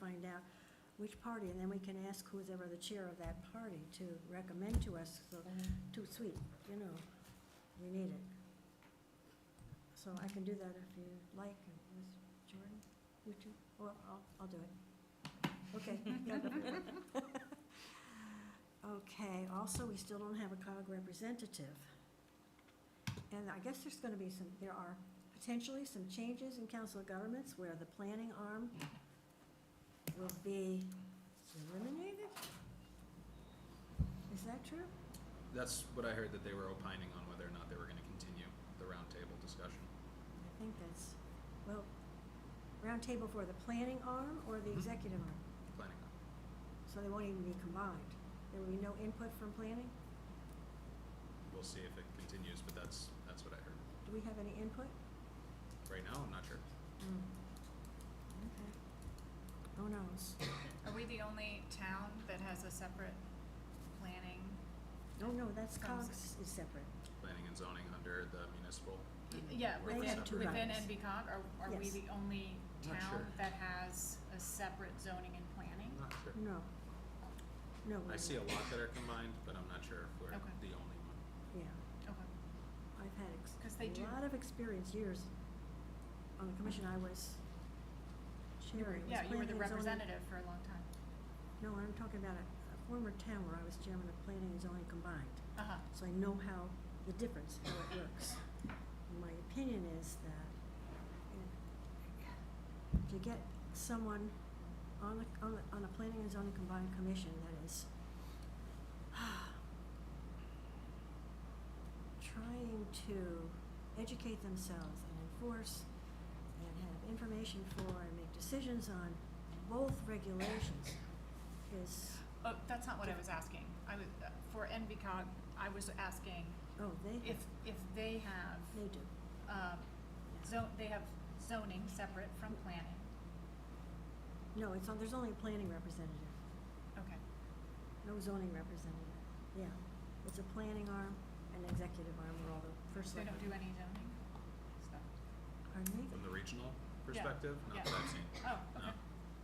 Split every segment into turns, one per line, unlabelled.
find out which party, and then we can ask who's ever the chair of that party to recommend to us, so, too sweet, you know, we need it. So I can do that if you like, and Ms. Jordan, would you, or I'll, I'll do it. Okay. Okay, also, we still don't have a COG representative. And I guess there's gonna be some, there are potentially some changes in council of governments where the planning arm will be eliminated? Is that true?
That's what I heard that they were opining on whether or not they were going to continue the roundtable discussion.
I think that's, well, roundtable for the planning arm or the executive arm?
Planning on.
So they won't even be combined. There will be no input from planning?
We'll see if it continues, but that's that's what I heard.
Do we have any input?
Right now, I'm not sure.
Hmm. Okay. Who knows?
Are we the only town that has a separate planning?
No, no, that's
Sounds-
COGS is separate.
Planning and zoning under the municipal.
Yeah,
We're
within,
separate.
within NBCOG, are, are we
Yes.
the only
Not sure.
town that has a separate zoning and planning?
I'm not sure.
No. No. we're
I see a
not.
lot that are combined, but I'm not sure if we're
Okay.
the only one.
Yeah.
Okay,
I've had ex-
'Cause they do-
a lot of experience, years, on the commission I was
You were-
chairing. was
yeah, you were the
planning and zoning.
representative for a long time.
No, I'm talking about a a former town where I was chairman of planning and zoning combined.
Uh-huh,
So I know how, the difference, how it works. My opinion is that you know, to get someone on a, on a, on a planning and zoning combined commission that is trying to educate themselves and enforce and have information for and make decisions on both regulations is,
oh, that's not what I was asking, I was, uh, for NBCOG, I was asking
oh, they,
if, if they have,
they do.
um, zo- they have zoning separate from planning,
No, it's, on- there's only a planning representative.
okay.
No zoning representative, yeah. It's a planning arm and executive arm, where all the first.
They don't do
selectmen-
any zoning stuff?
Pardon me?
From the regional
Yeah,
perspective, not
yeah.
that I've seen.
Oh,
No.
okay,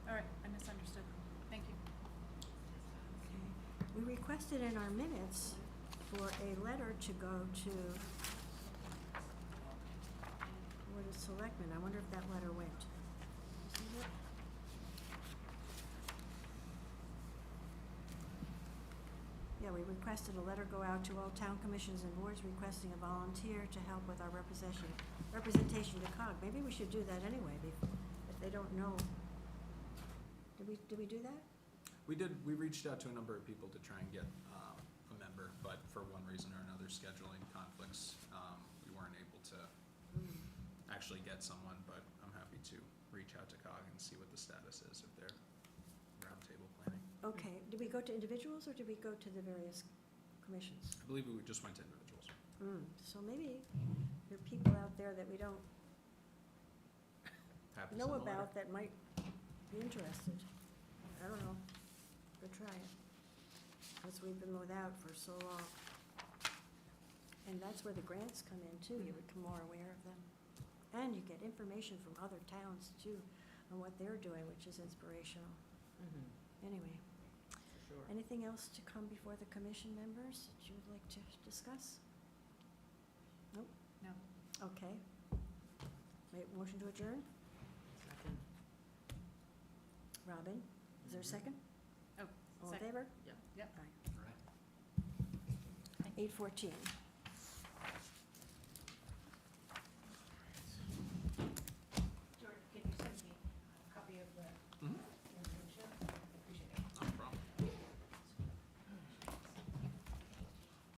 all right, I misunderstood, thank you.
Okay. We requested in our minutes for a letter to go to Board of Selectmen. I wonder if that letter went. Isn't it? Yeah, we requested a letter go out to all town commissions and boards requesting a volunteer to help with our representation, representation to COG. Maybe we should do that anyway, if- if they don't know. Did we, did we do that?
We did, we reached out to a number of people to try and get um, a member, but for one reason or another, scheduling conflicts, um, we weren't able to actually get someone, but I'm happy to reach out to COG and see what the status is of their roundtable planning.
Okay, did we go to individuals or did we go to the various commissions?
I believe we just went to individuals.
Mm, So maybe there are people out there that we don't
Happens in
know
the letter.
about that might be interested. I don't know, go try it, because we've been without for so long. And that's where the grants come in too, you become more aware of them. And you get information from other towns too on what they're doing, which is inspirational. Anyway. Anything else to come before the commission members that you would like to discuss? Nope,
No,
okay. Wait, motion to adjourn?
Second.
Robin, is
Mm-hmm.
there a second?
oh,
All in
second,
favor?
Yeah.
yep.
Eight fourteen.